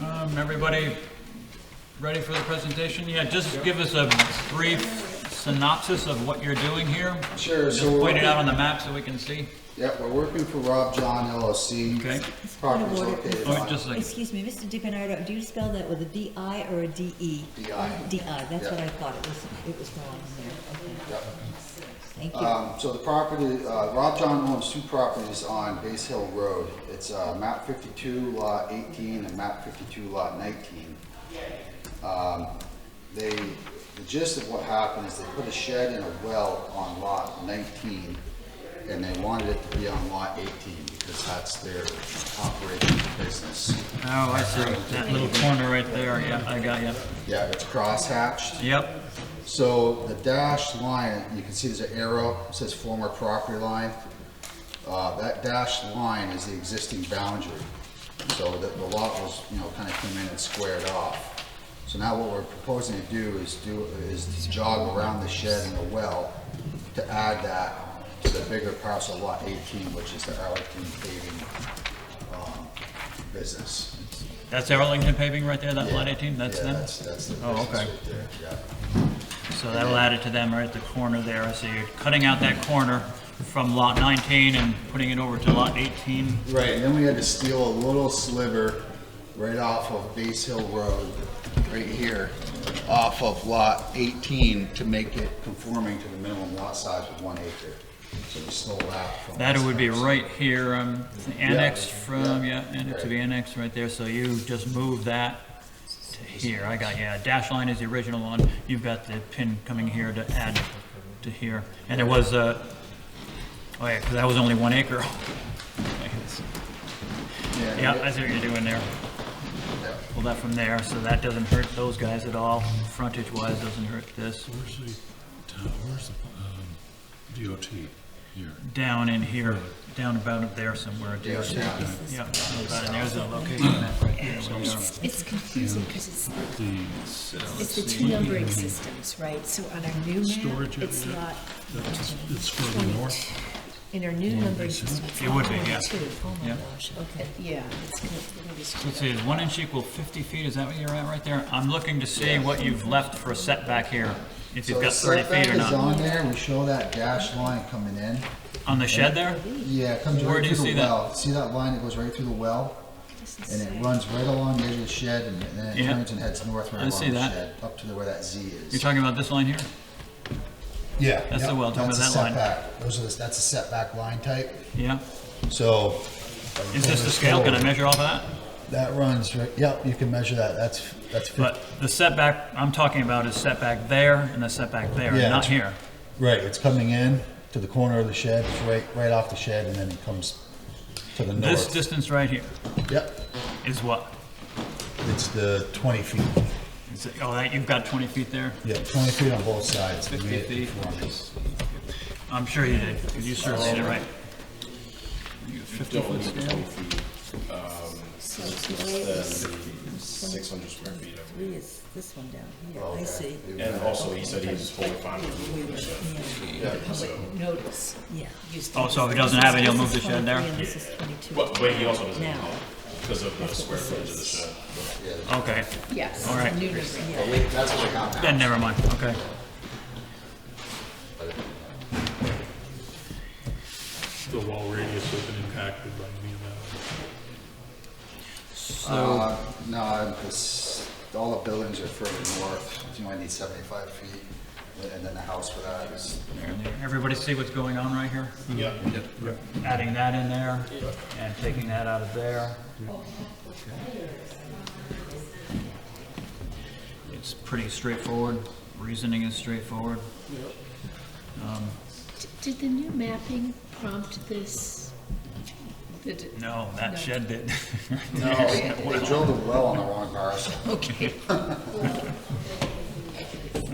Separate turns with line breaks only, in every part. Um, everybody ready for the presentation? Yeah, just give us a brief synopsis of what you're doing here.
Sure,
Just
so we're
point it out on
working-
the map so we can see.
Yeah, we're working for Rob John LLC.
Okay.
Property's located
Oh,
on
just a second.
Excuse me, Mr. DiBernardo, do you spell that with a D-I or a D-E?
DI.
D-I, that's what
Yeah.
I thought it was, it was wrong there, okay. Thank you.
Um, so the property, uh, Rob John owns two properties on Base Hill Road. It's, uh, map fifty-two lot eighteen and map fifty-two lot nineteen. Um, they, the gist of what happened is they put a shed and a well on lot nineteen, and they wanted it to be on lot eighteen, because that's their operating business.
Oh, I see. That little corner right there, yeah, I got you.
Yeah, it's crosshatched.
Yep,
So the dashed line, you can see there's an arrow, it says former property line. Uh, that dashed line is the existing boundary. So the, the lot was, you know, kind of came in and squared off. So now what we're proposing to do is do, is to jog around the shed and the well to add that to the bigger parcel lot eighteen, which is the Arlington paving, um, business.
that's Arlington paving right there, that lot 18, that's
Yeah,
them?
That's, that's the
Oh,
business
okay.
right there, yeah.
So that'll add it to them right at the corner there. So you're cutting out that corner from lot 19 and putting it over to lot 18.
Right, and then we had to steal a little sliver right off of Base Hill Road, right here, off of lot 18 to make it conforming to the minimum lot size of one acre. So we stole that from.
That
this
would be
house.
right here, um, annexed from, yeah, annexed to
Right.
be annexed right there, so you just move that to here, I got, yeah, dash line is the original one, you've got the pin coming here to add to here, and there was a, oh yeah, 'cause that was only one acre. Yeah, I see what you're doing there,
yeah.
pull that from there, so that doesn't hurt those guys at all, frontage wise doesn't hurt this,
Where's the, town- where's the um, DOT here?
down in here, down about up there somewhere,
Yeah,
yeah,
yeah.
about in there's a location map right there.
It's, it's confusing because it's,
The,
it's the two numbering systems, right? So on our new map,
Storage
it's
area.
lot
that's- it's further north.
In our new numbering system. it's
It would be,
lot
yeah.
22. Oh
Yeah.
my gosh, okay, yeah. it's gonna- it's gonna be screwed
Let's see, is one inch equal 50 feet, is that what you're at right there? I'm looking to see what you've left for a setback here, if
So
you've
the
got 30 feet
setback
or
is
not.
on there, we show that dash line coming in.
On the shed there?
Yeah, it comes
Where
right
do you
through
see
the
that?
well. See that line that goes right through the well? And it runs right along the edge of the shed and then it
Yeah.
turns and heads north right
I
along the
see that.
shed, up to the- where that Z is.
You're talking about this line here?
Yeah.
That's the
yep,
well, talking
that's
about
a
that line.
setback. Those are the, that's a setback line type,
Yeah?
so.
Is this the scale? Can I measure off of that?
That runs, right, yep, you can measure that, that's, that's. fif-
But the setback I'm talking about is setback there and the setback there,
Yeah,
not
it's-
here.
Right, it's coming in to the corner of the shed, it's right, right off the shed, and then it comes to the
This
north.
distance right here
Yep,
is what?
it's the twenty feet,
Is it- Oh, that, you've got 20 feet there?
yeah, twenty feet on both sides. to
50
meet
feet.
performance.
I'm sure you did, 'cause you surveyed it right.
Don't need twenty feet, um, six hundred square feet. I believe.
Three is this one down here, I see.
And also, he said he was fully fine with it, so.
Public notice.
Yeah.
used to-
Oh, so if he doesn't have it, he'll move the
This is
shed there?
23 and this is 22.
But, but he also doesn't need
Now.
it because of the square footage of the shed.
Okay,
Yes.
All right.
New numbering.
Yeah, we- That's what I got now.
then never mind, okay.
The wall radius has been impacted by any of
So,
Uh, No, it's, all the buildings are further north, you might need seventy-five feet, and then the house for that is
everybody see what's going on right here?
Yeah.
adding that in there and taking that out of there. It's pretty straightforward, reasoning is straightforward.
Did the new mapping prompt this? Did it?
No, that shed did.
No, they drilled a well on the wrong parcel.
Okay.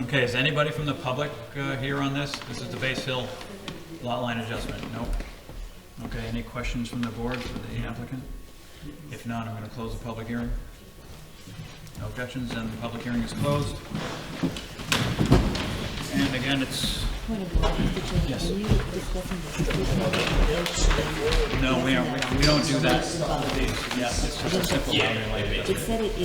Okay, is anybody from the public uh, here on this? This is the base hill lot line adjustment, nope. Okay, any questions from the board for the applicant? If not, I'm gonna close the public hearing. No objections, and the public hearing is closed. And again, it's,
Point of order, Mr. Chairman, are you discussing this?
no, we aren't, we- we don't do that. Yeah, it's just a simple.
It said it